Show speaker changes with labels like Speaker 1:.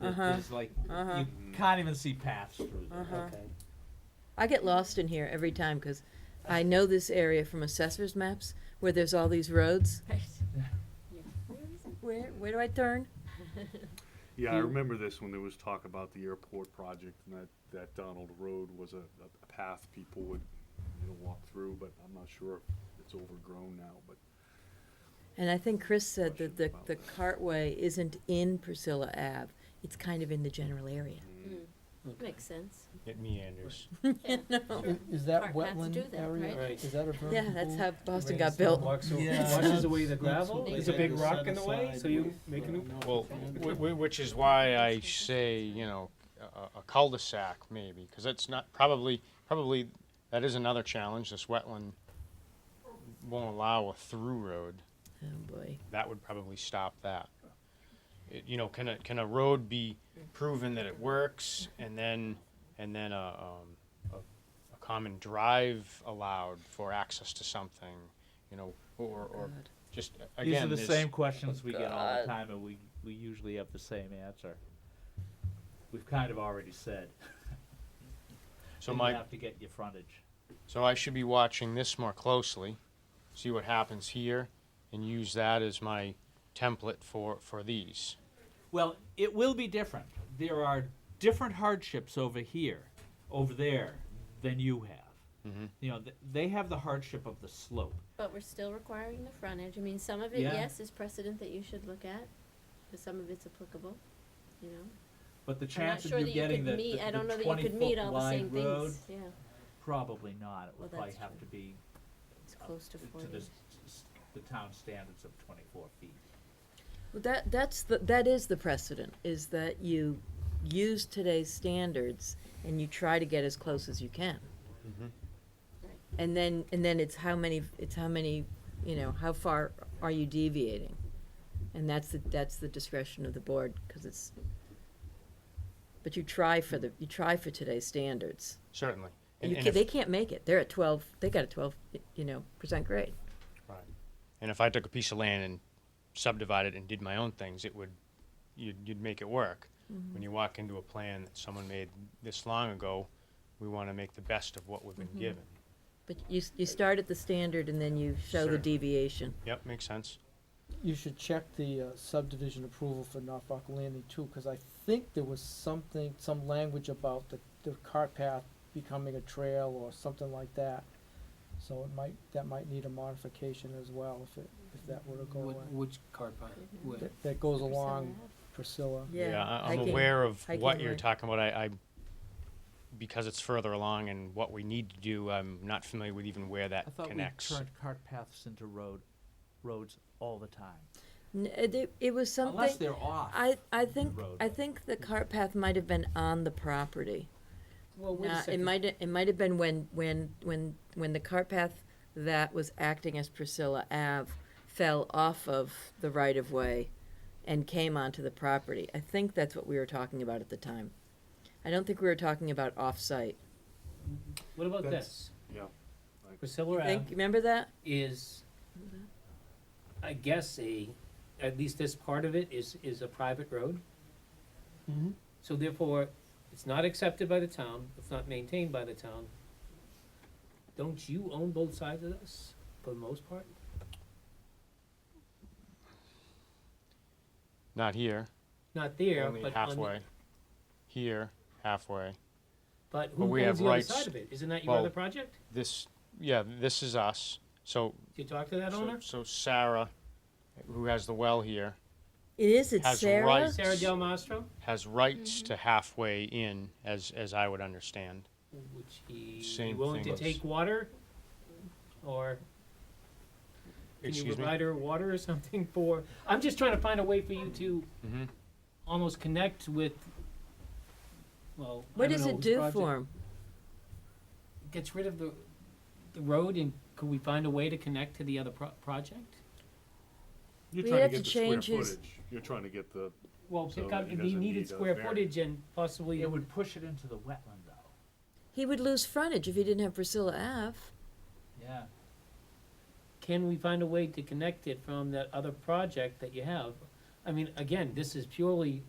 Speaker 1: that
Speaker 2: Uh-huh.
Speaker 1: is like,
Speaker 2: Uh-huh.
Speaker 1: you can't even see paths through there.
Speaker 2: Uh-huh.
Speaker 3: Okay.
Speaker 2: I get lost in here every time because I know this area from assessor's maps where there's all these roads.
Speaker 4: Right.
Speaker 1: Yeah.
Speaker 4: Yeah.
Speaker 2: Where, where do I turn?
Speaker 5: Yeah, I
Speaker 2: Mm.
Speaker 5: remember this when there was talk about the airport project and that, that Donald Road was a, a a path people would, you know, walk through, but I'm not sure if it's overgrown now, but
Speaker 2: And I think Chris said that the,
Speaker 5: Question about
Speaker 2: the
Speaker 5: that.
Speaker 2: cartway isn't in Priscilla Ave. It's kind of in the general area.
Speaker 4: Makes sense.
Speaker 6: It meanders.
Speaker 4: Yeah,
Speaker 7: I-
Speaker 4: sure.
Speaker 7: Is that
Speaker 4: Park paths do
Speaker 7: wetland
Speaker 4: that,
Speaker 7: area?
Speaker 4: right?
Speaker 3: Right.
Speaker 7: Is that a vertical?
Speaker 2: Yeah, that's how Boston got built.
Speaker 3: Walks over-
Speaker 7: Yeah.
Speaker 3: Washes away the gravel.
Speaker 4: There's
Speaker 3: Is
Speaker 4: a
Speaker 3: it
Speaker 4: big
Speaker 3: rock in the way, so you make a new.
Speaker 6: Well, wh- wh- which is why I say, you know, a- a, a cul-de-sac maybe, because it's not, probably, probably, that is another challenge. This wetland won't allow a through road.
Speaker 2: Oh, boy.
Speaker 6: That would probably stop that. It- You know, can a, can a road be proven that it works and then, and then a, um, a, a common drive allowed for access to something, you know, or, or
Speaker 2: God.
Speaker 6: just,
Speaker 1: Uh, These are
Speaker 6: again,
Speaker 1: the
Speaker 6: this-
Speaker 1: same questions we get all the
Speaker 2: God.
Speaker 1: time, and we, we usually have the same answer. We've kind of already said.
Speaker 6: so
Speaker 1: that
Speaker 6: my.
Speaker 1: You have to get your frontage.
Speaker 6: So I should be watching this more closely, see what happens here, and use that as my template for, for these.
Speaker 1: Well, it will be different. There are different hardships over here, over there, than you have.
Speaker 6: Mhm.
Speaker 1: You know, th- they have the hardship of the slope.
Speaker 4: But we're still requiring the frontage. I mean, some of it,
Speaker 1: Yeah.
Speaker 4: yes, is precedent that you should look at, but some of it's applicable, you know?
Speaker 1: But the
Speaker 4: I'm not
Speaker 1: chance of
Speaker 4: sure
Speaker 1: you
Speaker 4: that you
Speaker 1: getting
Speaker 4: could
Speaker 1: the,
Speaker 4: meet, I
Speaker 1: the,
Speaker 4: don't know
Speaker 1: the
Speaker 4: that you could meet
Speaker 1: 20-foot
Speaker 4: all the same
Speaker 1: wide road,
Speaker 4: things, yeah.
Speaker 1: probably not. It
Speaker 4: Well,
Speaker 1: would probably
Speaker 4: that's
Speaker 1: have
Speaker 4: true.
Speaker 1: to be
Speaker 4: It's close to
Speaker 1: to the,
Speaker 4: forty.
Speaker 1: s- s- the town standards of twenty-four feet.
Speaker 2: Well, that, that's, the that is the precedent, is that you use today's standards and you try to get as close as you can. Mm-hmm.
Speaker 4: Right.
Speaker 2: And then, and then it's how many, it's how many, you know, how far are you deviating? And that's the, that's the discretion of the board, because it's, but you try for the, you try for today's standards.
Speaker 6: Certainly.
Speaker 2: And
Speaker 6: And,
Speaker 2: you
Speaker 6: and,
Speaker 2: can, they
Speaker 6: if,
Speaker 2: can't make it, they're at twelve, they got a twelve, you know, percent grade.
Speaker 6: right. and if I took a piece of land and subdivided it and did my own things, it would you'd, you'd make it work.
Speaker 2: Mm-hmm.
Speaker 6: When you walk into a plan that someone made this long ago, we want to make the best of what we've
Speaker 2: Mm-hmm.
Speaker 6: been given.
Speaker 2: But you, s- you start at the standard and then you show the
Speaker 6: Sure.
Speaker 2: deviation.
Speaker 6: Yep, makes sense.
Speaker 7: You should check the uh, subdivision approval for Norfolk Landing too, because I think there was something, some language about the, the cart path becoming a trail or something like that. So it might, that might need a modification as well if it, if that were to go away.
Speaker 3: Which car path?
Speaker 4: Where?
Speaker 7: That, that goes
Speaker 4: Percent
Speaker 7: along
Speaker 4: left.
Speaker 7: Priscilla.
Speaker 6: I, I'm
Speaker 2: hiking.
Speaker 6: aware of
Speaker 2: hiking
Speaker 6: what you're
Speaker 2: route.
Speaker 6: talking about. I, I because it's further along and what we need to do, I'm not familiar with even where that
Speaker 1: I thought we
Speaker 6: connects.
Speaker 1: turned cart paths into road, roads all the time,
Speaker 2: N- It, it was
Speaker 1: unless
Speaker 2: something,
Speaker 1: they're off.
Speaker 2: I, I think,
Speaker 1: road.
Speaker 2: I think the cart path might have been on the property.
Speaker 3: Well,
Speaker 2: Nah, it might, it might have been when, when, when, when the cart path that was acting as Priscilla Ave fell off of the right of way and came onto the property. I think that's what we were talking about at the time. I don't think we were talking about off-site.
Speaker 8: What about
Speaker 5: That's-
Speaker 8: this?
Speaker 5: yeah.
Speaker 8: Priscilla Ave
Speaker 2: Think, remember that?
Speaker 8: is, I guess a, at least this part of it is, is a private road.
Speaker 3: Mhm.
Speaker 8: So therefore, it's not accepted by the town, it's not maintained by the town. Don't you own both sides of this, for the most part?
Speaker 6: Not here,
Speaker 8: Not there,
Speaker 6: only
Speaker 8: but on,
Speaker 6: halfway.
Speaker 8: the-
Speaker 6: Here, halfway.
Speaker 8: but
Speaker 6: But
Speaker 8: who
Speaker 6: we have
Speaker 8: owns the other
Speaker 6: rights.
Speaker 8: side of it? Isn't that your
Speaker 6: Well-
Speaker 8: other project?
Speaker 6: This, yeah, this is us. So,
Speaker 8: Did you talk to that
Speaker 6: so-
Speaker 8: owner?
Speaker 6: so Sarah, who has the well here,
Speaker 2: It is, it's
Speaker 6: Has
Speaker 2: Sarah?
Speaker 6: rights.
Speaker 8: Sarah Del Mastro,
Speaker 6: has rights
Speaker 2: Mm-hmm.
Speaker 6: to halfway in, as as I would understand.
Speaker 8: would she be
Speaker 6: Same
Speaker 8: willing to
Speaker 6: thing.
Speaker 8: take water? Or Can you
Speaker 6: Excuse me.
Speaker 8: provide her water or something for, I'm just trying to find a way for you to
Speaker 6: Mhm.
Speaker 8: almost connect with, well, I
Speaker 2: What
Speaker 8: don't
Speaker 2: does
Speaker 8: know
Speaker 2: it
Speaker 8: whose
Speaker 2: do
Speaker 8: project-
Speaker 2: for him?
Speaker 8: Gets rid of the, the road and could we find a way to connect to the other pro- project?
Speaker 5: You're
Speaker 2: We'd
Speaker 5: trying to
Speaker 2: have to
Speaker 5: get the square
Speaker 2: change his-
Speaker 5: footage, you're trying to get the,
Speaker 8: Well,
Speaker 5: So
Speaker 8: pick up,
Speaker 5: it
Speaker 8: we
Speaker 5: doesn't
Speaker 8: needed
Speaker 5: need a
Speaker 8: square
Speaker 5: variant.
Speaker 8: footage and possibly,
Speaker 1: It would push it into the wetland though,
Speaker 2: He would lose frontage if he didn't have Priscilla Ave.
Speaker 1: yeah.
Speaker 8: can we find a way to connect it from that other project that you have? I mean, again, this is purely